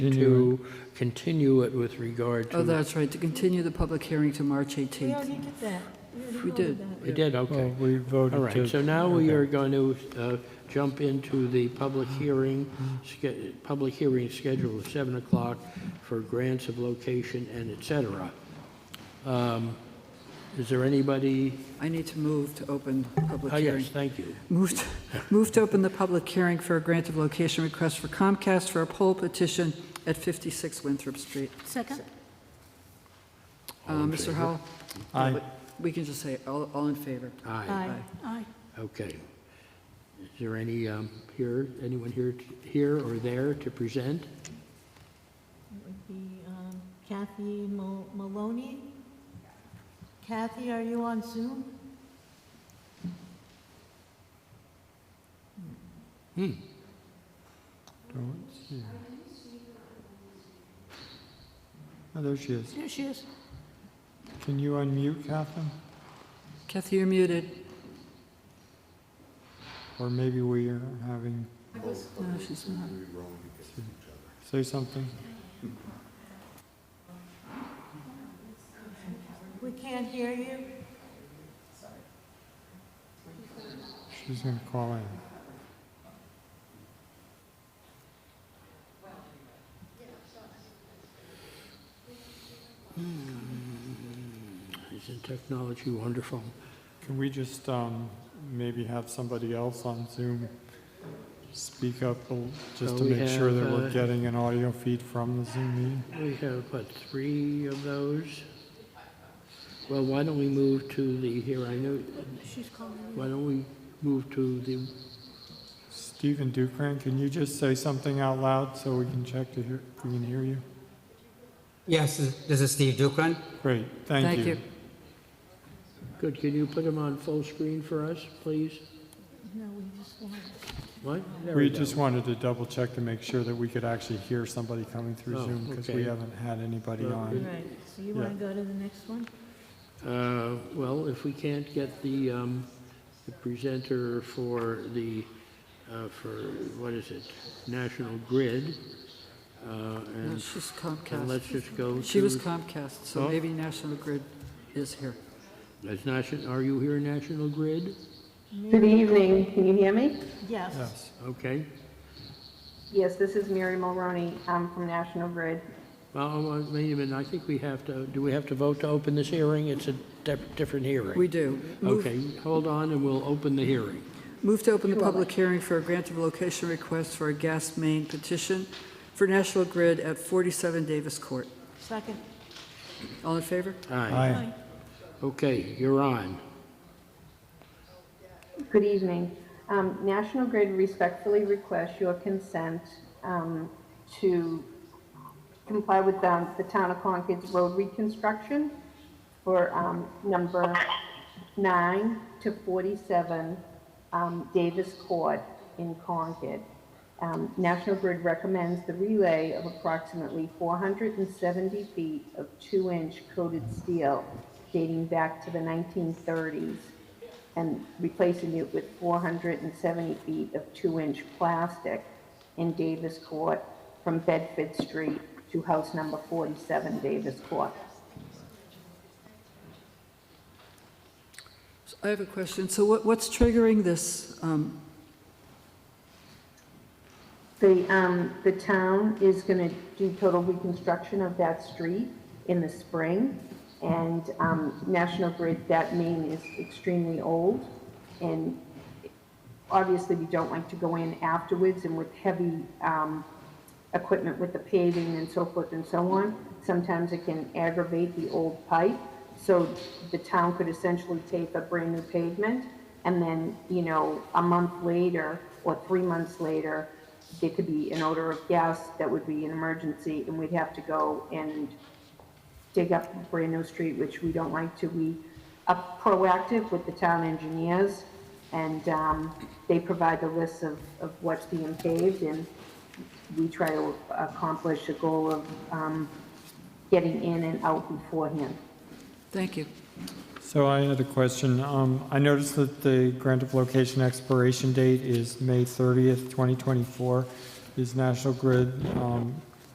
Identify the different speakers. Speaker 1: to continue it with regard
Speaker 2: Oh,
Speaker 1: to,
Speaker 2: that's right, to continue the public hearing to March
Speaker 3: We
Speaker 2: 18th.
Speaker 3: already did that. already
Speaker 2: We
Speaker 3: voted
Speaker 2: did.
Speaker 3: that.
Speaker 1: we did,
Speaker 4: Well,
Speaker 1: okay.
Speaker 4: we voted
Speaker 1: All
Speaker 4: to...
Speaker 1: right, so now we
Speaker 4: okay. Uh-huh.
Speaker 1: are going to uh, jump into the public hearing, sch- public hearing schedule of 7 o'clock for grants of location and et cetera. Um, Is there anybody?
Speaker 2: I need to move to open public
Speaker 1: Oh, yes,
Speaker 2: hearing.
Speaker 1: thank you.
Speaker 2: Move to- move to open the public hearing for a grant of location request for Comcast for a poll petition at 56 Winthrop Street.
Speaker 3: Second?
Speaker 2: Uh,
Speaker 1: All in
Speaker 2: Mr.
Speaker 1: favor?
Speaker 2: Howell?
Speaker 4: Aye.
Speaker 2: But We can just say, all all in favor.
Speaker 1: Aye,
Speaker 3: Aye. Aye.
Speaker 1: okay. Is there any um, here, anyone here, t- here or there to present?
Speaker 3: It would be um, Kathy Mal- Maloney. Kathy, are you on Zoom?
Speaker 1: Hmm,
Speaker 4: Don't see. Oh, there she is.
Speaker 3: There she is.
Speaker 4: Can you unmute, Catherine?
Speaker 2: Kathy, you're muted.
Speaker 4: Or maybe we are having,
Speaker 2: No, she's not.
Speaker 4: say something?
Speaker 3: We can't hear you.
Speaker 4: She's going to call in.
Speaker 1: isn't technology wonderful?
Speaker 4: Can we just um, maybe have somebody else on Zoom speak up a l- just to
Speaker 1: So we
Speaker 4: make sure that
Speaker 1: have,
Speaker 4: we're
Speaker 1: uh,
Speaker 4: getting an audio feed from the Zoom meeting?
Speaker 1: We have, what, three of those? Well, why don't we move to the, here, I know,
Speaker 3: She's calling.
Speaker 1: why don't we move to the,
Speaker 4: Stephen Dukran, can you just say something out loud so we can check to hear, we can hear you?
Speaker 5: Yes, this is Steve Dukran.
Speaker 4: Great,
Speaker 2: Thank you.
Speaker 1: good, can you put them on full screen for us, please?
Speaker 3: No, we just want.
Speaker 1: What? There
Speaker 4: We
Speaker 1: go.
Speaker 4: just wanted to double check to make sure that we could actually hear somebody coming through
Speaker 1: Oh,
Speaker 4: Zoom because we
Speaker 1: okay.
Speaker 4: haven't had anybody
Speaker 1: Well,
Speaker 4: on.
Speaker 3: Right, so you
Speaker 4: Yeah.
Speaker 3: want to go to the next one?
Speaker 1: Uh, Well, if we can't get the um, the presenter for the, uh, for, what is it, National Grid, uh,
Speaker 2: No,
Speaker 1: and
Speaker 2: she's
Speaker 1: and
Speaker 2: Comcast.
Speaker 1: let's just go to...
Speaker 2: She was Comcast,
Speaker 1: Oh.
Speaker 2: so maybe National Grid is here.
Speaker 1: Is Nation- Are you here, National Grid?
Speaker 6: Good evening, can you hear me?
Speaker 3: Yes.
Speaker 4: Yes,
Speaker 1: Okay.
Speaker 6: Yes, this is Mary Mulroney, I'm from National Grid.
Speaker 1: Well, well, wait a minute, I think we have to, do we have to vote to open this hearing? It's a di- different hearing.
Speaker 2: We do. Move
Speaker 1: Okay, hold on, and we'll open the hearing.
Speaker 2: Move to open the public hearing for a grant of location request for a gas main petition for National Grid at 47 Davis Court.
Speaker 3: Second?
Speaker 2: All in favor?
Speaker 1: Aye.
Speaker 4: aye,
Speaker 1: Okay, you're on.
Speaker 6: Good evening. Um, National Grid respectfully requests your consent um, to comply with um, the Town of Concord's road reconstruction for um, number 9 to 47 um, Davis Court in Concord. Um, National Grid recommends the relay of approximately 470 feet of 2-inch coated steel dating back to the 1930s and replacing it with 470 feet of 2-inch plastic in Davis Court from Bedford Street to house number 47 Davis Court.
Speaker 2: So I have a question. So what- what's triggering this? um,
Speaker 6: The, um, the town is gonna do total reconstruction of that street in the spring. And, um, National Grid, that main is extremely old. And obviously, we don't like to go in afterwards and with heavy, um, equipment with the paving and so forth and so on. Sometimes it can aggravate the old pipe. So the town could essentially take a brand new pavement and then, you know, a month later or three months later, there could be an odor of gas that would be an emergency and we'd have to go and dig up Brando Street, which we don't like to. We are proactive with the town engineers, and um, they provide the list of, of what's being paved, and we try to accomplish the goal of um, getting in and out beforehand.
Speaker 2: Thank you.
Speaker 4: So I had a question. Um, I noticed that the grant of location expiration date is May 30th, 2024. Is National Grid um,